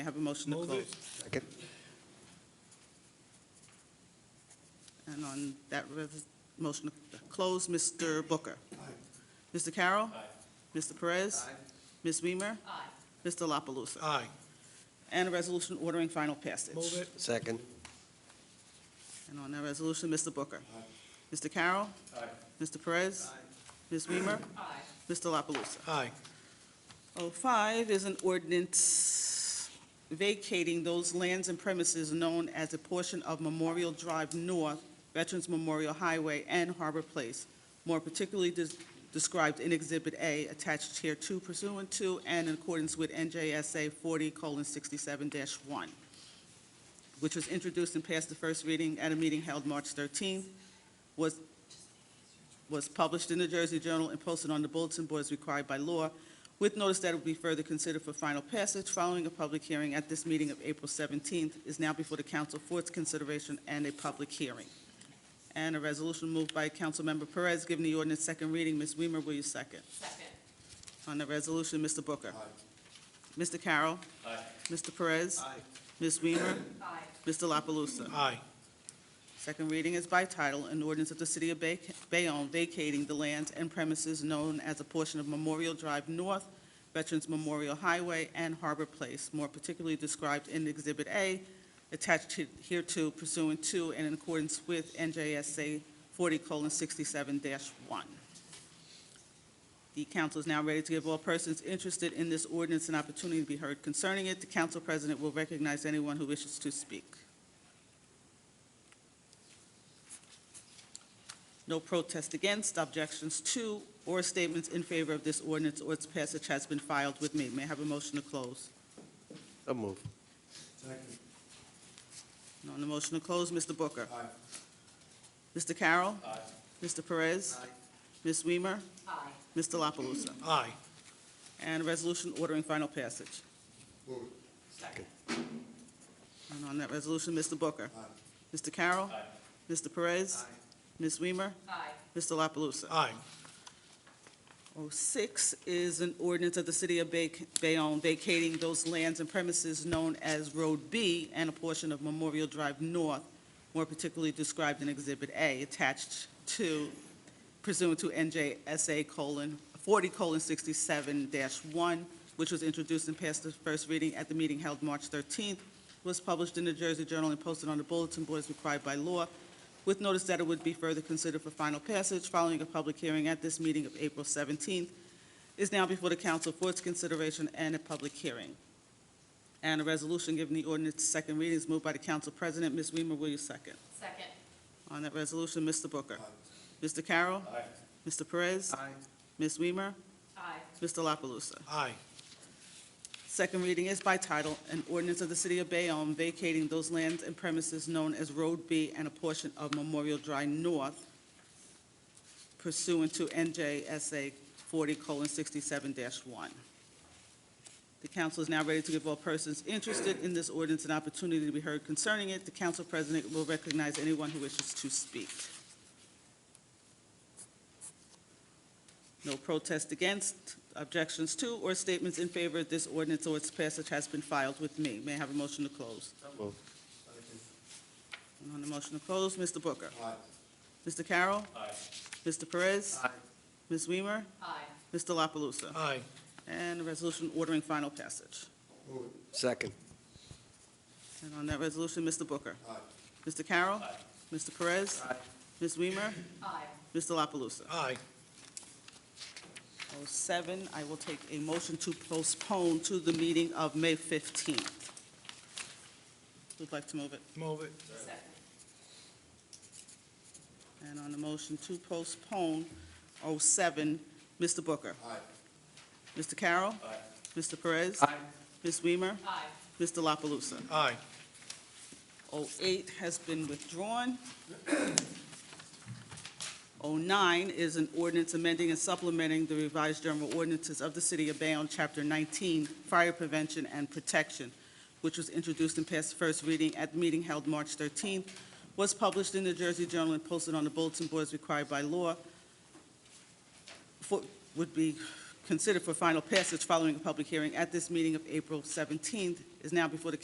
I have a motion to Move close. it. Second. And on that res- motion to close, Mr. Booker. Mr. Carroll. Aye. Mr. Perez. Aye. Ms. Weimer. Aye. Mr. La Palusa. Aye. And a resolution ordering final passage. Move it. Second. And on that resolution, Mr. Booker. Aye. Mr. Carroll. Aye. Mr. Perez. Aye. Ms. Weimer. Aye. Mr. La Palusa. Aye. Oh, five is an ordinance vacating those lands and premises known as a portion of Memorial Drive North, Veterans Memorial Highway, and Harbor Place, more particularly des- described in Exhibit A, attached here to pursuant to and in accordance with NJSA 40:67-1, which was introduced and passed the first reading at a meeting held March 13th, was, was published in the Jersey Journal and posted on the bulletin board as required by law, with notice that it will be further considered for final passage following a public hearing at this meeting of April 17th, is now before the council for its consideration and a public hearing. And a resolution moved by Councilmember Perez, giving the ordinance second reading. Ms. Weimer, will you second? Second. On the resolution, Mr. Booker. Mr. Carroll. Mr. Perez. Aye. Ms. Weimer. Aye. Mr. La Palusa. Aye. Second reading is by title, an ordinance of the City of Bay- Bayonne vacating the lands and premises known as a portion of Memorial Drive North, Veterans Memorial Highway, and Harbor Place, more particularly described in Exhibit A, attached he- hereto pursuant to and in accordance with NJSA 40:67-1. The council is now ready to give all persons interested in this ordinance an opportunity to be heard concerning it. The council president will recognize anyone who wishes to speak. No protest against, objections to, or statements in favor of this ordinance or its passage has been filed with me. May I have a motion to close? So move. And on the motion to close, Mr. Booker. Aye. Mr. Carroll. Aye. Mr. Perez. Aye. Ms. Weimer. Aye. Mr. La Palusa. Aye. And a resolution ordering final passage. Second. And on that resolution, Mr. Booker. Aye. Mr. Carroll. Aye. Mr. Perez. Aye. Ms. Weimer. Aye. Mr. La Palusa. Aye. 06 is an ordinance of the City of Bay- Bayonne vacating those lands and premises known as Road B and a portion of Memorial Drive North, more particularly described in Exhibit A, attached to pursuant to NJSA colon, 40:67-1, which was introduced and passed the first reading at the meeting held March 13th, was published in the Jersey Journal and posted on the bulletin board as required by law, with notice that it would be further considered for final passage following a public hearing at this meeting of April 17th, is now before the council for its consideration and a public hearing. And a resolution giving the ordinance second reading is moved by the council president. Ms. Weimer, will you second? Second. On that resolution, Mr. Booker. Mr. Carroll. Mr. Perez. Ms. Weimer. Aye. Mr. La Palusa. Aye. Second reading is by title, an ordinance of the City of Bayonne vacating those lands and premises known as Road B and a portion of Memorial Drive North pursuant to NJSA 40:67-1. The council is now ready to give all persons interested in this ordinance an opportunity to be heard concerning it. The council president will recognize anyone who wishes to speak. No protest against, objections to, or statements in favor of this ordinance or its passage has been filed with me. May I have a motion to close? So move. And on the motion to close, Mr. Booker. Mr. Carroll. Mr. Perez. Ms. Weimer. Aye. Mr. La Palusa. Aye. And a resolution ordering final passage. Second. And on that resolution, Mr. Booker. Mr. Carroll. Mr. Perez. Ms. Weimer. Aye. Mr. La Palusa. Aye. 07, I will take a motion to postpone to the meeting of May 15th. Who'd like to move it? Move it. Second. And on the motion to postpone 07, Mr. Booker. Aye. Mr. Carroll. Aye. Mr. Perez. Aye. Ms. Weimer. Aye. Mr. La Palusa. Aye. 08 has been withdrawn. 09 is an ordinance amending and supplementing the revised general ordinances of the City of Bayonne, Chapter 19, Fire Prevention and Protection, which was introduced and passed first reading at the meeting held March 13th, was published in the Jersey Journal and posted on the bulletin board as required by law, for- would be considered for final passage following a public hearing at this meeting of April 17th, is now before the